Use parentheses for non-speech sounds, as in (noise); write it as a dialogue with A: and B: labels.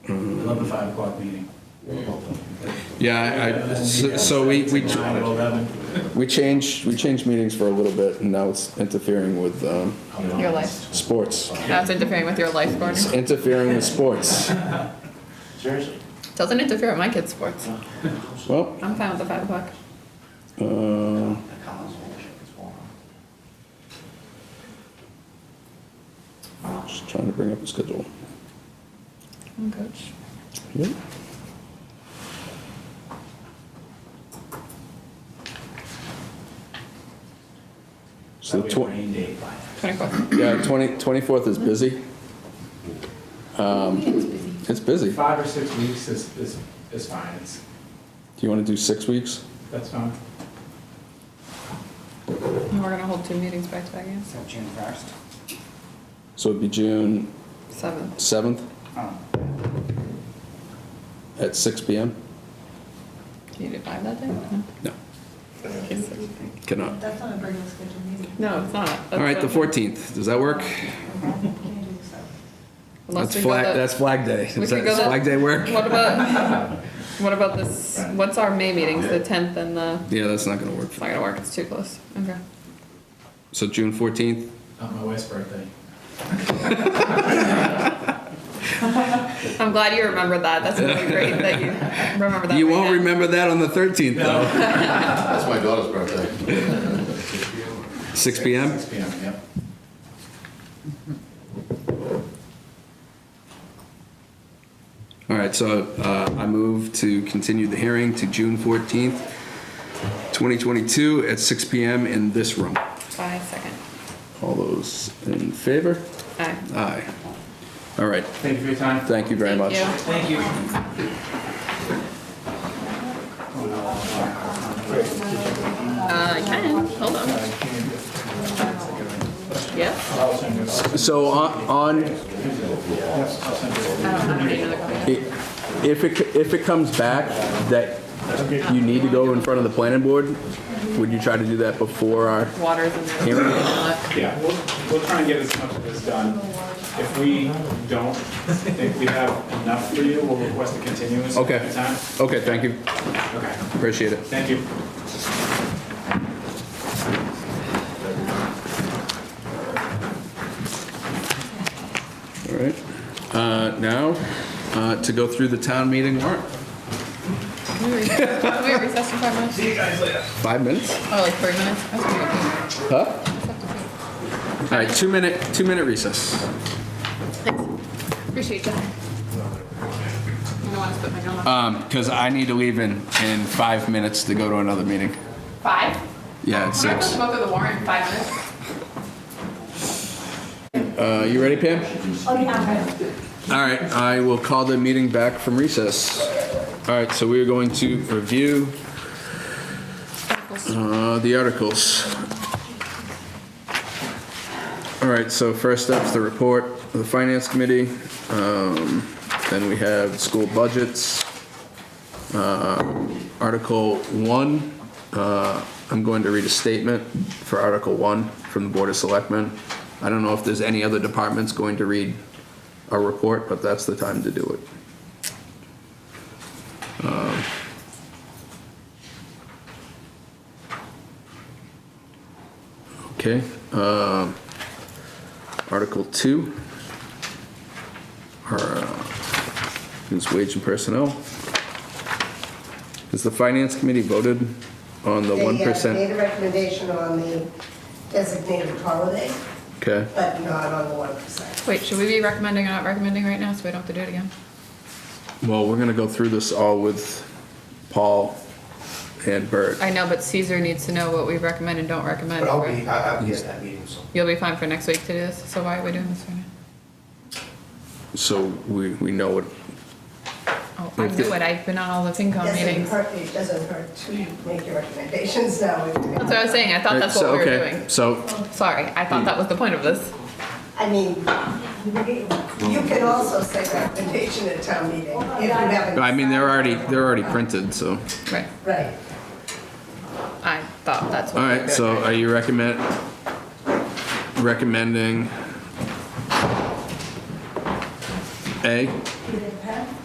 A: Another five o'clock meeting.
B: Yeah, I- I, so so we, we,
A: Nine to eleven.
B: we changed, we changed meetings for a little bit and now it's interfering with, um,
C: Your life.
B: sports.
C: That's interfering with your life, Gordon.
B: It's interfering with sports.
A: Seriously?
C: Doesn't interfere with my kids' sports.
B: Well,
C: I'm fine with the five o'clock.
B: uh, just trying to bring up the schedule.
C: I'm coach.
B: Yep. So
A: That'd
B: the
A: be a
B: twen-
A: rain date.
C: Twenty-fourth.
B: yeah, twenty, twenty-fourth is busy. Um, It's busy. Do
A: Five or six weeks is, is, is fine, it's,
B: you want to do six weeks?
A: that's fine.
C: And we're gonna hold two meetings back to back, yes?
D: So June first?
B: So it'd be June
C: Seven.
B: seventh
D: Oh,
B: at six PM?
C: Can you do five that day? No.
B: No,
C: Yes.
B: cannot.
E: That's not a regular scheduled
C: (laughs)
E: meeting.
C: No, it's not.
B: All right, the
C: That's-
B: fourteenth, does that work?
E: Can't do this.
C: unless
B: That's
C: we go
B: flag,
C: the-
B: that's Flag Day.
C: we
B: Does
C: could
B: that,
C: go
B: does
C: the-
B: Flag Day work?
C: What about, what about this, what's our May meetings, the tenth and the,
B: Yeah, that's not gonna work.
C: it's not gonna work, it's too close. Okay.
B: So June fourteenth?
A: Not Uh, my wife's birthday.
C: I'm glad you remembered that. That's really great that you remember that.
B: You
C: right
B: won't
C: now.
B: remember that on the thirteenth, though.
F: That's my daughter's birthday.
B: Six PM?
A: Six PM, yep.
B: All right, so uh, I move to continue the hearing to June 14th, 2022 at 6 PM in this room.
C: By second.
B: All those in favor?
C: Aye.
B: Aye. All right,
A: Thank you for your time.
B: thank you very much.
C: Thank you.
A: Thank you.
C: Uh, I can, hold on. Yes?
B: So on, on-
C: I don't have any other questions.
B: i- if it, c- if it comes back that you need to go in front of the planning board, would you try to do that before our
C: Waters in the.
B: Here.
G: Yeah, we'll, we'll try and get as much of this done. If we don't think we have enough for you, we'll request a continuance. at
B: Okay.
G: the time.
B: Okay, thank you,
G: Okay,
B: appreciate it.
G: thank you.
B: All right, Uh, now, uh, to go through the town meeting warrant.
C: Can we recess- can we recess for five minutes?
B: Five minutes?
C: Oh, like three minutes? That's pretty
B: Huh? All right, two minute, two minute recess.
C: good. Appreciate you. I don't want to put my gum on.
B: Um, cause I need to leave in, in five minutes to go to another meeting.
C: Five?
B: Yeah, it's
C: I'm supposed
B: six.
C: to go through the warrant in five minutes.
B: Uh, you ready, Pam?
E: Oh, yeah, I'm ready.
B: All right, I will call the meeting back from recess. All right, so we are going to review, uh, the articles. All right, so first up's the report of the finance committee. Um, then we have school budgets. Article 1, uh, I'm going to read a statement for Article 1 from the Board of Selectmen. I don't know if there's any other departments going to read a report, but that's the time to do it. Um, Okay. um, Article 2 are, uh, is wage and personnel. Has the finance committee voted on the
H: They
B: one
H: have made
B: percent?
H: a recommendation on the designated holiday,
B: Okay,
H: but not on the one percent.
C: Wait, should we be recommending or not recommending right now so we don't have to do it again?
B: well, we're gonna go through this all with Paul and Bert.
C: I know, but Caesar needs to know what we recommend and don't recommend.
I: But I'll
C: right?
I: be, I- I'll be at that meeting, so.
C: You'll be fine for next week to do this, so why are we doing this right now?
B: So we, we know what,
C: Oh, I knew it, I've been on all the FinCom
H: Doesn't
C: meetings. That's
H: hurt, it doesn't hurt to make your recommendations now.
C: what I was saying, I thought that's
B: Uh, So,
C: what we were
B: okay, Hmm.
C: doing.
B: So,
C: Sorry, I thought that was the point of this.
H: I mean, you can also say recommendation at town meeting if you haven't.
B: I mean, they're already, they're already printed, so.
C: Right,
H: Right.
C: I thought that's what
B: All
C: we were
B: right,
C: doing.
B: so are you recommend, recommending A,